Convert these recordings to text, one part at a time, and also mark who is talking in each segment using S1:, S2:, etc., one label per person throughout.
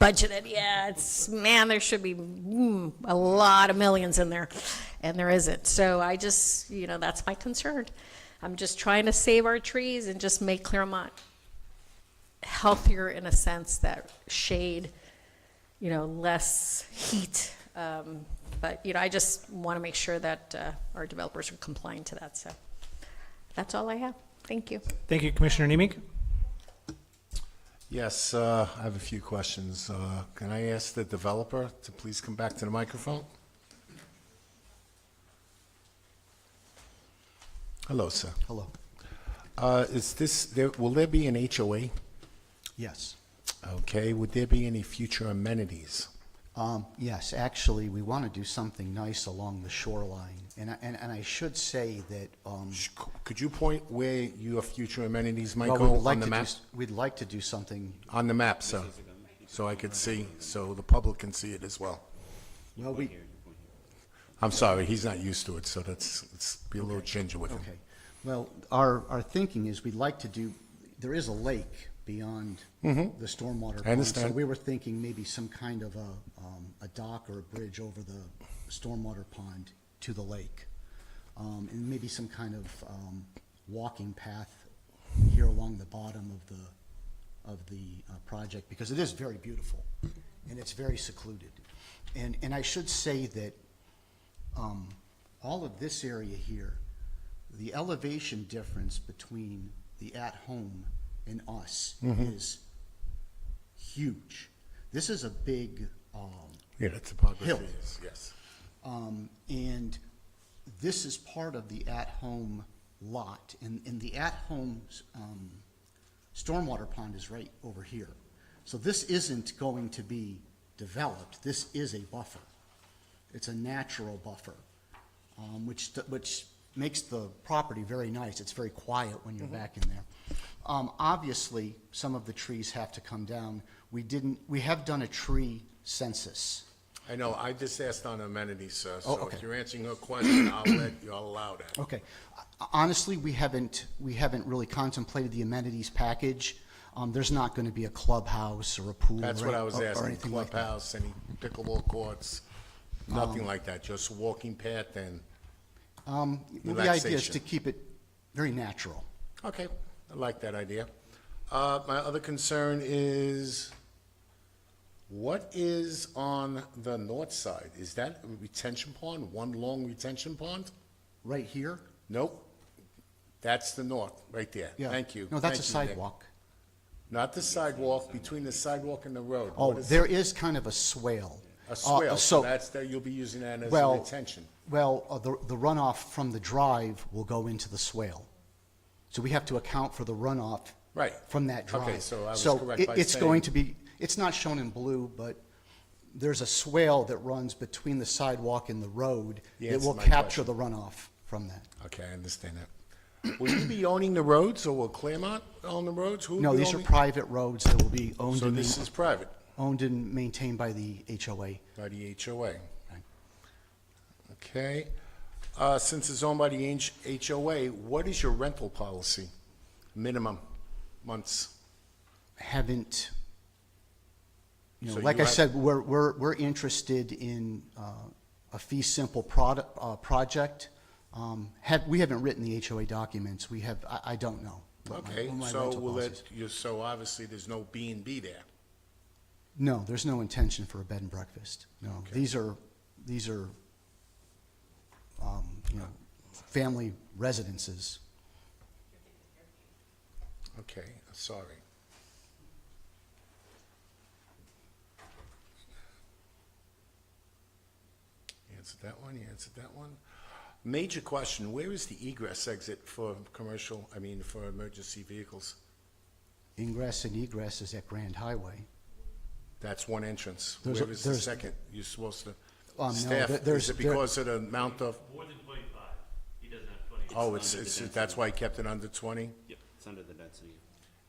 S1: budgeted, yeah, it's, man, there should be mm, a lot of millions in there, and there isn't. So I just, you know, that's my concern. I'm just trying to save our trees and just make Claremont healthier in a sense that shade, you know, less heat. Um, But, you know, I just want to make sure that uh, our developers are complying to that, so that's all I have. Thank you.
S2: Thank you, Commissioner Nemec.
S3: Yes, uh, I have a few questions. Uh, Can I ask the developer to please come back to the microphone? Hello, sir.
S4: Hello.
S3: Uh, Is this, there- will there be an HOA?
S4: Yes.
S3: Okay, would there be any future amenities?
S4: Um, yes, actually, we want to do something nice along the shoreline. And, I- and, and I should say that, um,
S3: Sh- c- Could you point where your future amenities might
S4: well, we would
S3: go
S4: like
S3: on
S4: to
S3: the
S4: do,
S3: map?
S4: s- we'd like to do something,
S3: On the map, sir, so I could see, so the public can see it as well.
S4: well, we,
S3: I'm sorry, he's not used to it, so that's, let's be a little ginger with him.
S4: okay. Well, our, our thinking is we'd like to do, there is a lake beyond
S3: Mm-hmm.
S4: the stormwater. pond, So
S3: understand.
S4: we were thinking maybe some kind of a, um, a dock or a bridge over the stormwater pond to the lake. Um, and maybe some kind of, um, walking path here along the bottom of the, of the, uh, project, because it is very beautiful, and it's very secluded. And, and I should say that, um, all of this area here, the elevation difference between the at-home and us is huge. This is a big, um,
S3: Yeah, the topography
S4: Hill.
S3: is, yes.
S4: um, and this is part of the at-home lot, and, and the at-home, um, stormwater pond is right over here. So this isn't going to be developed, this is a buffer. It's a natural buffer, um, which, which makes the property very nice, it's very quiet when you're back in there. Um, obviously, some of the trees have to come down, we didn't, we have done a tree census.
S3: I know, I just asked on amenities, sir,
S4: Oh,
S3: so
S4: okay.
S3: if you're answering her question, I'll let you, I'll allow that.
S4: Okay. Honestly, we haven't, we haven't really contemplated the amenities package. Um, there's not gonna be a clubhouse or a pool.
S3: That's
S4: or
S3: what
S4: any-
S3: I was
S4: Oh, or
S3: asking,
S4: anything like that. Oh.
S3: clubhouse, any pickleball courts, nothing like that, just walking path and,
S4: Um, well, the idea is
S3: Relaxation.
S4: to keep it very natural.
S3: okay, I like that idea. Uh, my other concern is, what is on the north side? Is that a retention pond, one long retention pond?
S4: Right here?
S3: Nope, that's the north, right there,
S4: Yeah.
S3: thank you.
S4: No, that's a
S3: Thank you, Nick.
S4: sidewalk.
S3: Not the sidewalk, between the sidewalk and the road.
S4: Oh,
S3: What is-
S4: there is kind of a swale. Uh,
S3: A swale, so
S4: so-
S3: that's, that you'll be using that as a
S4: well,
S3: retention.
S4: Well, uh, the the runoff from the drive will go into the swale. So we have to account for the runoff.
S3: Right.
S4: From that
S3: Okay,
S4: drive.
S3: so I was correct
S4: it-
S3: by
S4: it's
S3: saying-
S4: going to be, it's not shown in blue, but there's a swale that runs between the sidewalk and the road
S3: You
S4: that will
S3: answered my
S4: capture the runoff from that.
S3: Okay, I understand that. Will you be owning the roads, or will Claremont own the roads? Who will
S4: No,
S3: be
S4: these are
S3: owning-
S4: private roads that will be owned
S3: So
S4: and,
S3: this
S4: main-
S3: is private,
S4: owned and maintained by the HOA.
S3: by the HOA. Okay, uh, since it's owned by the H- HOA, what is your rental policy? Minimum months?
S4: haven't, you know,
S3: So
S4: like
S3: you
S4: I
S3: have-
S4: said, we're, we're, we're interested in uh, a fee simple product, uh, project. Um, Have, we haven't written the HOA documents, we have, I, I don't know. what my-
S3: Okay,
S4: what my
S3: so
S4: rental
S3: will
S4: policy is.
S3: it, you, so obviously there's no B and B there.
S4: No, there's no intention for a bed and breakfast, no. These are, these are, um, you know, family residences.
S3: Okay, sorry. You Answered that one, you answered that one. Major question, where is the egress exit for commercial, I mean, for emergency vehicles?
S4: Ingress and egress is at Grand Highway.
S3: That's one entrance.
S4: There's a-
S3: Where is the
S4: there's-
S3: second? You're supposed
S4: Um,
S3: to,
S4: no,
S3: staff,
S4: there- there's-
S3: is it
S4: there-
S3: because of the amount of,
S5: More than twenty-five. He doesn't have twenty.
S3: oh, it's, it's, that's why I kept it under twenty?
S5: Yep, it's under the density.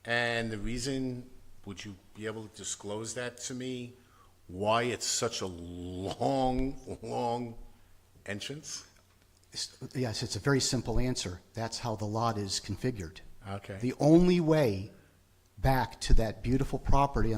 S3: And the reason, would you be able to disclose that to me? Why it's such a long, long entrance?
S4: It's- Yes, it's a very simple answer. That's how the lot is configured.
S3: Okay.
S4: The only way back to that beautiful property